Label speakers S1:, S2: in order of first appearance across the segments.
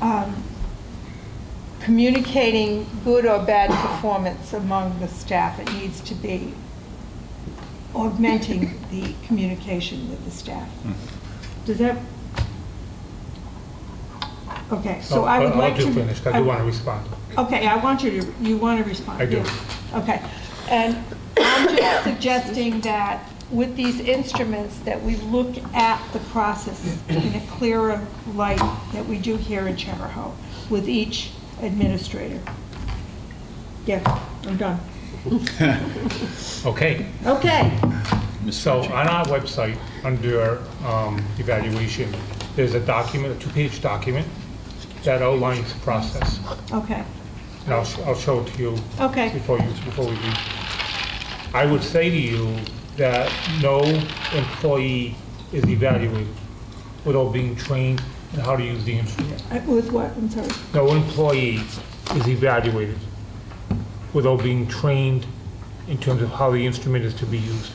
S1: um, communicating good or bad performance among the staff. It needs to be augmenting the communication with the staff.
S2: Hmm.
S1: Does that? Okay, so I would
S2: I'll-
S1: like to.
S2: I'll do finish, 'cause I do want to respond.
S1: Okay, I want you to, you want to respond?
S2: I do.
S1: yeah. Okay. And I'm just suggesting that with these instruments, that we look at the process in a clearer light that we do here in Charahoe with each administrator. Yeah, I'm done.
S2: Okay,
S1: Okay,
S2: so on our website, under um, evaluation, there's a document, a two-page document that outlines the process.
S1: okay,
S2: And I'll, sh- I'll show it to you
S1: okay,
S2: before you, before we leave. I would say to you that no employee is evaluated without being trained in how to use the instrument.
S1: Uh, with what, I'm sorry,
S2: No employee is evaluated without being trained in terms of how the instrument is to be used.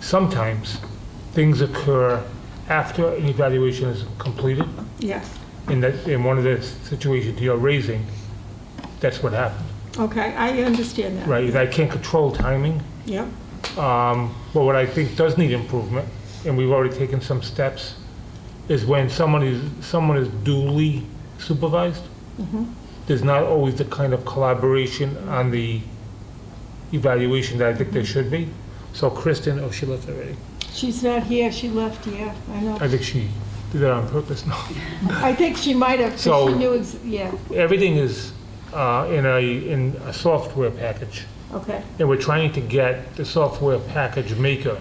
S2: Sometimes, things occur after an evaluation is completed,
S1: yes,
S2: and that, in one of the situations you're raising, that's what happened,
S1: okay, I understand that.
S2: right? I can't control timing,
S1: Yep,
S2: um, But what I think does need improvement, and we've already taken some steps, is when someone is, someone is duly supervised, there's not always the kind of collaboration on the evaluation that I think there should be. So Kristen, oh, she left already.
S1: she's not here, she left, yeah, I know.
S2: I think she did that on purpose, no.
S1: I think she might have, 'cause
S2: So-
S1: she knew, ex- yeah,
S2: Everything is uh, in a, in a software package.
S1: okay,
S2: And we're trying to get the software package maker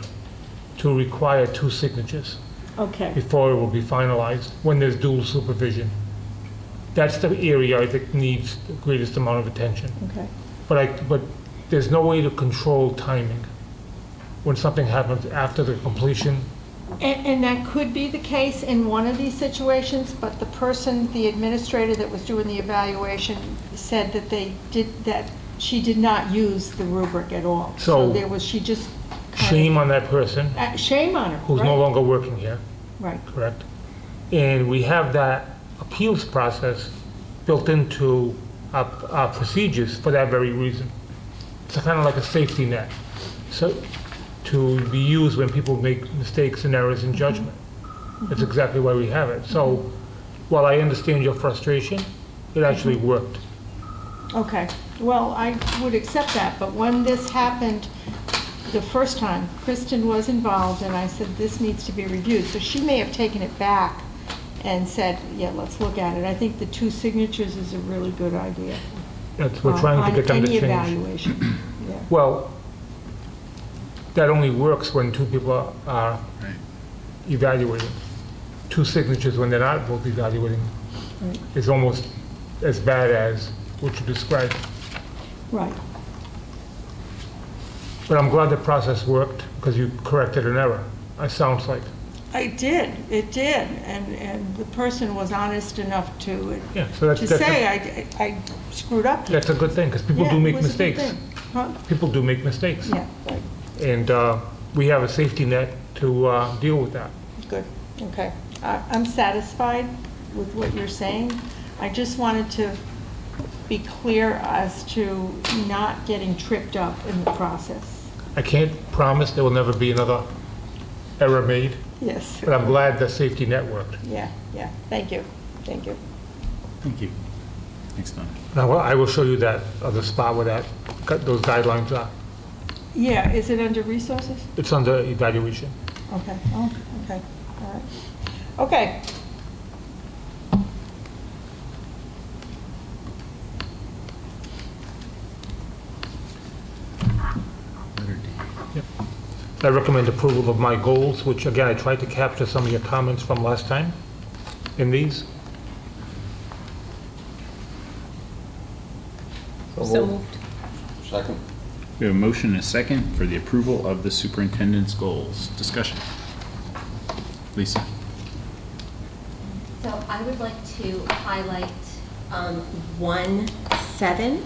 S2: to require two signatures.
S1: okay.
S2: before it will be finalized, when there's dual supervision. That's the area I think needs the greatest amount of attention.
S1: Okay,
S2: But I, but there's no way to control timing when something happens after the completion.
S1: and, and that could be the case in one of these situations, but the person, the administrator that was doing the evaluation said that they did, that she did not use the rubric at all.
S2: So-
S1: there was, she just. kind of-
S2: Shame on that person
S1: Uh, Shame on her,
S2: who's no
S1: right?
S2: longer working here,
S1: Right,
S2: correct? And we have that appeals process built into our, our procedures for that very reason. It's kind of like a safety net, so, to be used when people make mistakes and errors in judgment. That's exactly why we have it. So while I understand your frustration, it actually worked.
S1: okay. Well, I would accept that, but when this happened the first time, Kristen was involved, and I said, this needs to be reviewed. So she may have taken it back and said, yeah, let's look at it. I think the two signatures is a really good idea. Uh,
S2: That's, we're trying
S1: on
S2: to get them to
S1: Any
S2: change.
S1: evaluation, yeah.
S2: Well, that only works when two people are- are
S3: Right.
S2: evaluating. Two signatures when they're not both evaluating
S1: Right.
S2: is almost as bad as what you described.
S1: Right,
S2: But I'm glad the process worked because you corrected an error, it sounds like.
S1: it did, it did, and, and the person was honest enough to,
S2: Yeah, so that's,
S1: to
S2: that's,
S1: say,
S2: a-
S1: I, I screwed up. here."
S2: that's a good thing because people
S1: Yeah,
S2: do
S1: it
S2: make
S1: was a good
S2: mistakes.
S1: thing. Huh?
S2: People do make mistakes.
S1: Yeah, right,
S2: And uh, we have a safety net to uh, deal with that.
S1: good, okay. I, I'm satisfied with what you're saying. I just wanted to be clear as to not getting tripped up in the process.
S2: I can't promise there will never be another error made,
S1: Yes,
S2: but I'm glad the safety net worked.
S1: yeah, yeah, thank you, thank you.
S3: Thank you. Thanks, Donna.
S2: Now, I will show you that other spot where that, got those guidelines are.
S1: Yeah, is it under resources?
S2: It's under evaluation.
S1: Okay, oh, okay, all right. Okay.
S3: Letter D.
S2: I recommend approval of my goals, which again, I tried to capture some of your comments from last time in these.
S4: So moved.
S5: Second.
S3: We have a motion and a second for the approval of the superintendent's goals. Discussion. Lisa?
S4: So I would like to highlight um, 1-7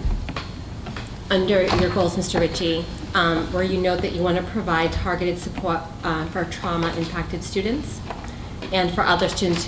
S4: under your goals, Mr. Ritchie, um, where you note that you want to provide targeted support uh, for trauma-impacted students and for other students